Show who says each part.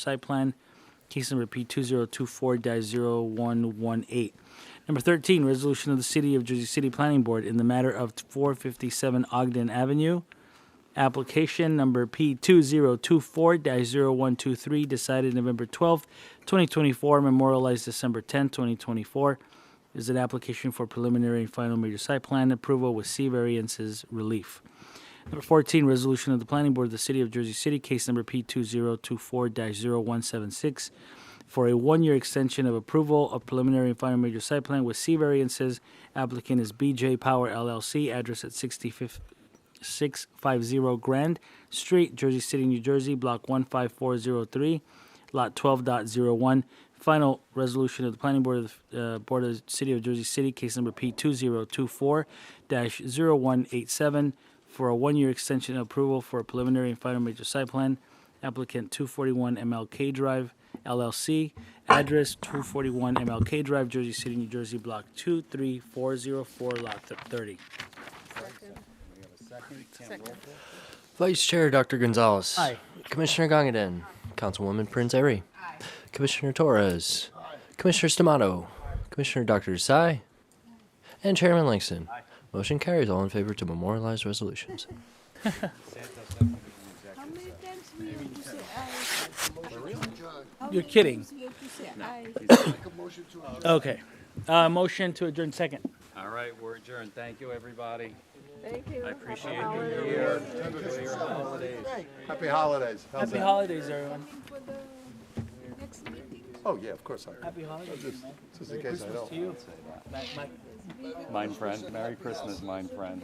Speaker 1: site plan, case number P two zero two four 118 Number thirteen, resolution of the City of Jersey City Planning Board in the matter of four fifty-seven Ogden Avenue. Application number P two zero two four 123 decided November twelfth, twenty twenty-four, memorialized December tenth, twenty twenty-four. Is an application for preliminary and final major site plan approval with C variances relief. Number 14, resolution of the Planning Board of the City of Jersey City, case number P2024-0176, for a one-year extension of approval of preliminary and final major site plan with C variances. Applicant is BJ Power LLC, address at 65 650 Grand Street, Jersey City, New Jersey, Block 15403, Lot 12.01. Final resolution of the Planning Board of the uh, Board of the City of Jersey City, case number P2024-0187, for a one-year extension of approval for a preliminary and final major site plan. Applicant 241 MLK Drive LLC, address 241 MLK Drive, Jersey City, New Jersey, Block 23404, Lot 30.
Speaker 2: Vice Chair Dr. Gonzalez.
Speaker 1: Aye.
Speaker 2: Commissioner Gongadin. Councilwoman Prince Airy. Commissioner Torres. Commissioner Stamato. Commissioner Dr. Desai. And Chairman Langston. Motion carries all in favor to memorialize resolutions.
Speaker 3: How many times we have to say aye? How
Speaker 1: You're
Speaker 3: many
Speaker 1: kidding.
Speaker 3: times we have to say aye?
Speaker 1: Okay. Uh, motion to adjourn second.
Speaker 4: All right, we're adjourned. Thank you, everybody.
Speaker 3: Thank you.
Speaker 4: I appreciate you.
Speaker 5: Happy holidays. How's
Speaker 1: Happy
Speaker 5: that?
Speaker 1: holidays, everyone.
Speaker 3: For the next meeting.
Speaker 5: Oh, yeah, of course I
Speaker 1: Happy holidays.
Speaker 5: Just in case I don't.
Speaker 1: To you. Bye, bye.
Speaker 4: Mine friend, Merry Christmas, mine friend.